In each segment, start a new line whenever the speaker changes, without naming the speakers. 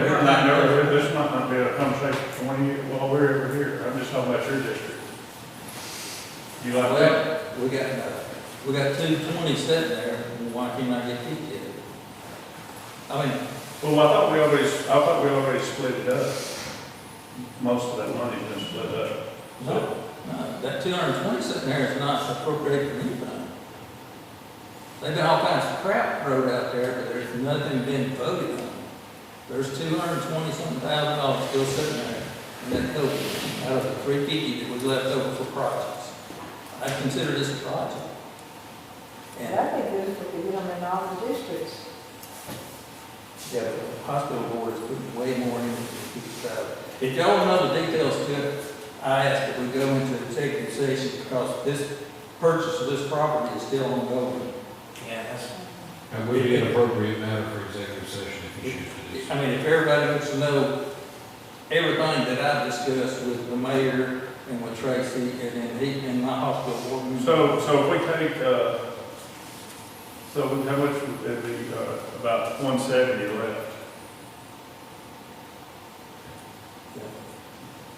I'm not, nervous. this might not be a conversation for when you, while we're ever here, I'm just talking about your district. You like that?
Well, we got, uh, we got two twenty sitting there, and why can't I get fifty? of it? I mean,
Well, I thought we already, I thought we already split it up. Most of that money's been split up.
no, no, that two hundred and twenty sitting there is not appropriated for anything. They've got all kinds of crap thrown out there, but there's nothing being voted on. There's two hundred and twenty something thousand dollars still sitting there, and that COVID, out of the three fifty that was left over for projects. I consider this a project. And
That'd be good for the, you know, in all the districts.
Yeah, but the hospital board is putting way more into this out. If y'all want to know the details to it, I ask that we go into executive session because this purchase of this property is still ongoing. Yes.
And would be an appropriate matter for executive session if you choose to do
I mean, if everybody wants to know everything that I've discussed with the mayor and with Tracy and then he and my hospital board. member-
So, so if we take, uh, so how much would it be, uh, about one seventy left?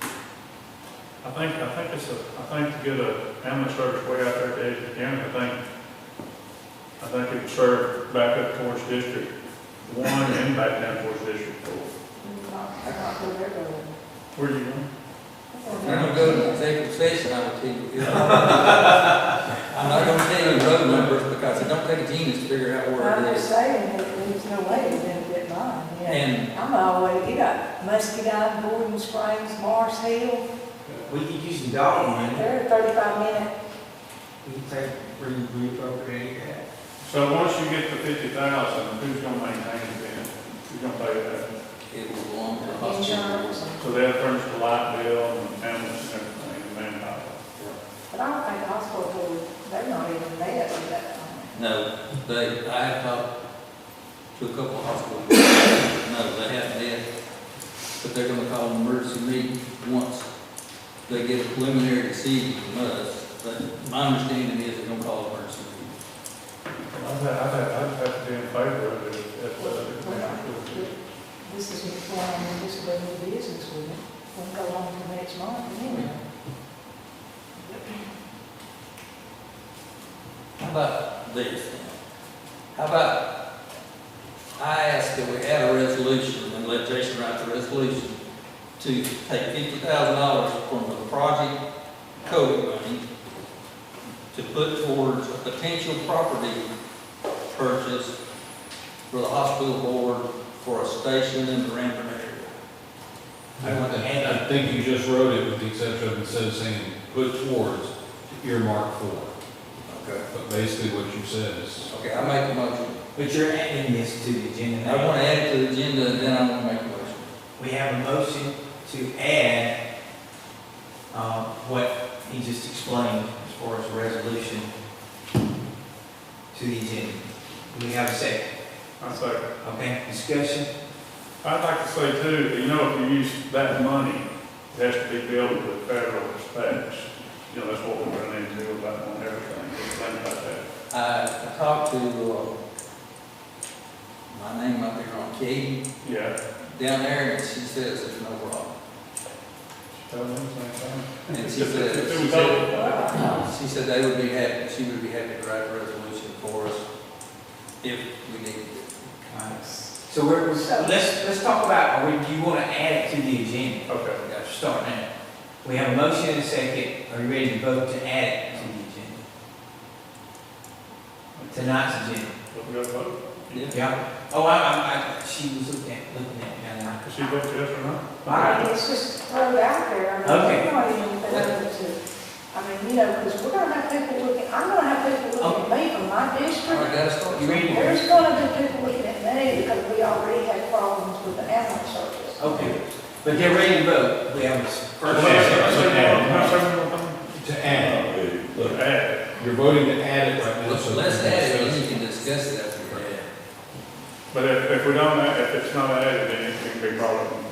I think, I think it's a, I think to get a ambulance service way out there to Edgewood County, I think, I think it would serve back up towards District One and back down towards District Four. Where do you going?
If you're gonna go to executive session, I will tell you. I'm not gonna tell you road numbers because it don't take a genius to figure out where
I'm
it
just
is.
saying that there's no way to benefit mine, yeah.
And
I'm always, you got Muscadine, Gordon Springs, Mars Hill,
We could use some dog money.
they're thirty-five minute,
We could take, re- reappropriate that.
So once you get the fifty thousand, who's gonna maintain it then? Who's gonna pay that?
it will belong to the hospital.
insurance, and-
So they'll furnish the light bill and ambulance and everything, and manpower.
but I don't think the hospital board, they're not even there with that.
No, they, I have talked to a couple of hospitals. No, they haven't yet. But they're gonna call an emergency meeting once they get a preliminary decision from us. But my understanding is they're gonna call an emergency meeting.
I'd have, I'd have, I'd have to be in favor of it if, if,
We're not-
uh,
This is, well, I mean, this is a new business, we won't go on to the next month, anyway.
How about this? now? How about, I ask that we add a resolution and let Jason write the resolution to take fifty thousand dollars from the project COVID money to put towards a potential property purchase for the hospital board for a station in the Ranford area. I want to add
I think you just wrote it with the exception of instead of saying put towards earmark for.
Okay.
But basically what you said is,
Okay, I make a motion.
But you're adding this to the agenda.
I want to add it to the agenda and then I'm gonna make a motion.
We have a motion to add, um, what he just explained as far as resolution to the agenda. Do we have a second?
I'd say,
Okay, discussion?
I'd like to say too, that, you know, if you use that money, it has to be billed with federal dispatch. You know, that's what we're running into about on everything, things like that.
I I talked to, uh, my name up there on Katie,
Yeah.
down there, and she says there's no problem.
Tell them the same thing.
And she said,
It
she
was
said,
all-
she said they would be happy, she would be happy to write a resolution for us if we needed it.
Alright. So we're, we're- let's, let's talk about, are we, do you want to add it to the agenda?
Okay,
We gotta start now. We have a motion and a second. Are you ready to vote to add it to the agenda? Tonight's agenda.
but we got to vote.
Yeah.
Yeah, oh, I, I, I, she was looking at, looking at, me, and I,
Does she vote yes or no?
All right.
It's just thrown out there, I mean,
Okay.
we're not even put out there to, I mean, you know, because we're gonna have people looking, I'm gonna have people looking at me from
All
my
right,
district.
guys, start.
You ready?
There's gonna be people looking at me because we already had problems with the ambulance service.
okay, but they're ready to vote, we have a s-
Well,
first.
I said- I
and
said,
a
no, I
second.
said one more thing.
to add, look,
Add.
you're voting to add it right now.
Let's
so-
let's add it, and you can discuss it after.
But if, if we don't, add- if it's not added, then it can be brought up in Uh,
Uh,
uh,